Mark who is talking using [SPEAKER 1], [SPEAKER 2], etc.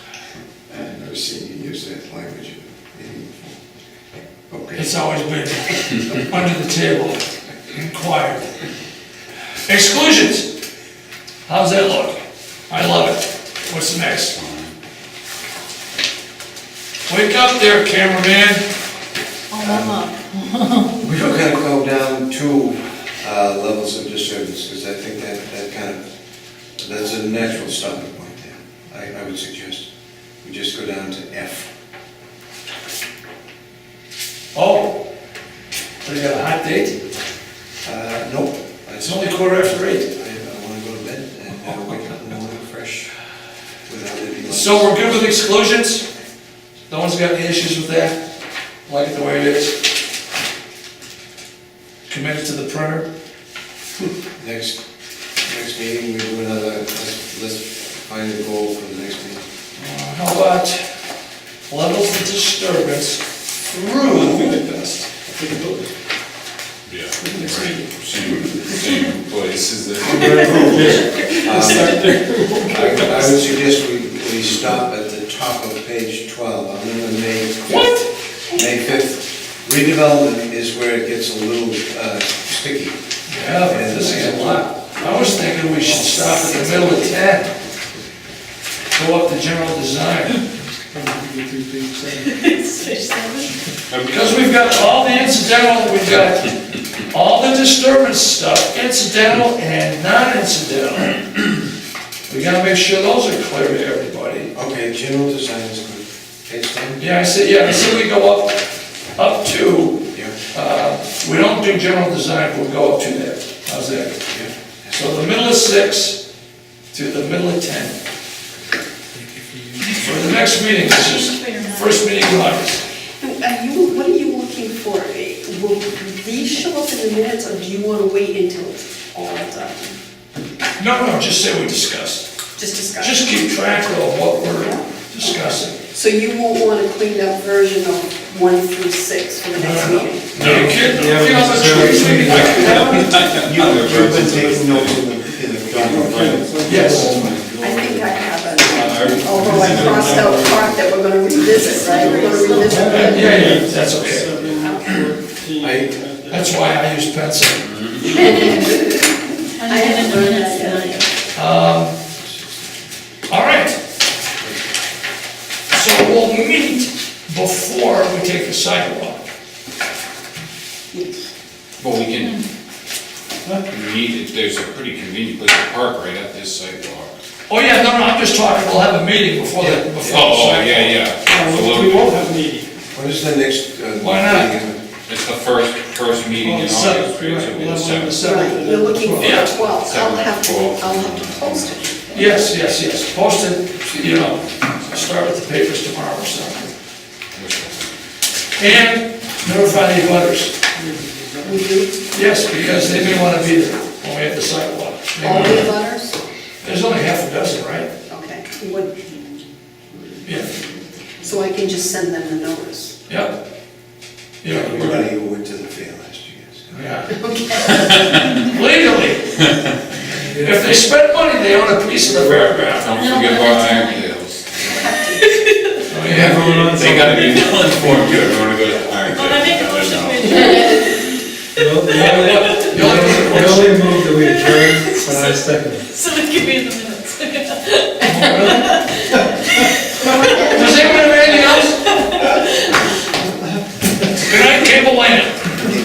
[SPEAKER 1] ever seen you use that language in any form. Okay.
[SPEAKER 2] It's always been under the table, inquired. Exclusions. How's that look? I love it. What's next? Wake up there, cameraman.
[SPEAKER 3] Oh,
[SPEAKER 1] We are gonna go down two uh, levels of disturbance, because I think that, that kind of, that's a natural stopping point there. I, I would suggest, we just go down to F.
[SPEAKER 2] Oh, we got a hot date?
[SPEAKER 1] Uh, nope.
[SPEAKER 2] It's only quarter after eight.
[SPEAKER 1] I, I wanna go to bed and uh, wake up in the morning fresh without any. lights.
[SPEAKER 2] So we're good with exclusions? No one's got any issues with that? Like it the way it is? Committed to the printer?
[SPEAKER 1] Next, next meeting, we do another, let's, let's find a goal for the next meeting.
[SPEAKER 2] How about levels of disturbance through
[SPEAKER 4] Yeah. Right. Same, same place as the.
[SPEAKER 1] I I would suggest we, we stop at the top of page 12, I'm in the May 5th. May 5th. Redevelopment is where it gets a little uh, sticky.
[SPEAKER 2] Yeah, but this is a lot. I was thinking we should stop at the middle of ten. Go up to general design,
[SPEAKER 3] it's fish seven.
[SPEAKER 2] because we've got all the incidental, we've got all the disturbance stuff, incidental and non-incidental. We gotta make sure those are clear to everybody.
[SPEAKER 1] Okay, general design is good. Page 10?
[SPEAKER 2] Yeah, I said, yeah, I said we go up, up to
[SPEAKER 1] Yeah,
[SPEAKER 2] We don't do general design, we'll go up to that, how's that?
[SPEAKER 1] yeah.
[SPEAKER 2] So the middle of six to the middle of ten. For the next meeting, this is first meeting in August.
[SPEAKER 5] Are uh, you, what are you looking for? Uh, Will these show up in the minutes, or do you want to wait until it's all done?
[SPEAKER 2] No, no, just say we discussed,
[SPEAKER 5] Just discuss.
[SPEAKER 2] just keep track of what we're discussing.
[SPEAKER 5] So you won't want a cleaned up version of one through six for the
[SPEAKER 2] No,
[SPEAKER 5] next
[SPEAKER 2] no, no.
[SPEAKER 5] meeting?
[SPEAKER 2] No, you can't, you can't have a choice, maybe
[SPEAKER 1] You've been taking notes in the, in the document.
[SPEAKER 2] Yes,
[SPEAKER 5] I think I
[SPEAKER 2] Uh,
[SPEAKER 5] have it, although I crossed out part that we're going to revisit, right? We're going to revisit.
[SPEAKER 2] yeah,
[SPEAKER 5] it.
[SPEAKER 2] yeah, that's okay,
[SPEAKER 1] I-
[SPEAKER 2] that's why I use pencil.
[SPEAKER 3] I haven't done that yet.
[SPEAKER 2] All right. So we'll meet before we take the sidewalk.
[SPEAKER 4] Well, we can, meet, if there's a pretty convenient place to park right at this sidewalk.
[SPEAKER 2] Oh, yeah, no, no, I'm just talking, we'll have a meeting before the, before the
[SPEAKER 4] Oh, oh,
[SPEAKER 2] sidewalk.
[SPEAKER 4] yeah, yeah.
[SPEAKER 6] Uh, We won't have a meeting.
[SPEAKER 1] What is the next? uh,
[SPEAKER 2] Why not?
[SPEAKER 1] meeting?
[SPEAKER 4] It's the first, first meeting in
[SPEAKER 2] On the
[SPEAKER 4] August,
[SPEAKER 2] seventh,
[SPEAKER 4] right? So it'll be
[SPEAKER 2] right,
[SPEAKER 4] the seventh.
[SPEAKER 5] Right, you're looking for
[SPEAKER 2] Yeah.
[SPEAKER 5] the twelfth. I'll have to,
[SPEAKER 4] Seven, twelve.
[SPEAKER 5] I'll have to post it.
[SPEAKER 2] Yes, yes, yes, post it, you know, start with the papers tomorrow or something. And notify the butters,
[SPEAKER 5] We do,
[SPEAKER 2] yes, because they may wanna be there when we have the sidewalk. They
[SPEAKER 5] all
[SPEAKER 2] wanna-
[SPEAKER 5] the letters?
[SPEAKER 2] There's only half a dozen, right?
[SPEAKER 5] Okay, What-
[SPEAKER 2] Yeah,
[SPEAKER 5] so I can just send them the notice.
[SPEAKER 2] yep. Yeah, we're gonna-
[SPEAKER 1] Everybody who went to the fair last year. so.
[SPEAKER 2] yeah. Legally. If they spend money, they own a piece of the fairground.
[SPEAKER 4] Don't forget about Iron Tales.
[SPEAKER 2] Oh, yeah.
[SPEAKER 4] They gotta be well informed, you don't wanna go to Iron Tales.
[SPEAKER 3] Well, I make a motion to adjourn.
[SPEAKER 2] The only thing that works-
[SPEAKER 6] move that we adjourn, but I second it.
[SPEAKER 3] So it could be in the minutes.
[SPEAKER 2] Does anyone have anything else? Good night, Cable Land.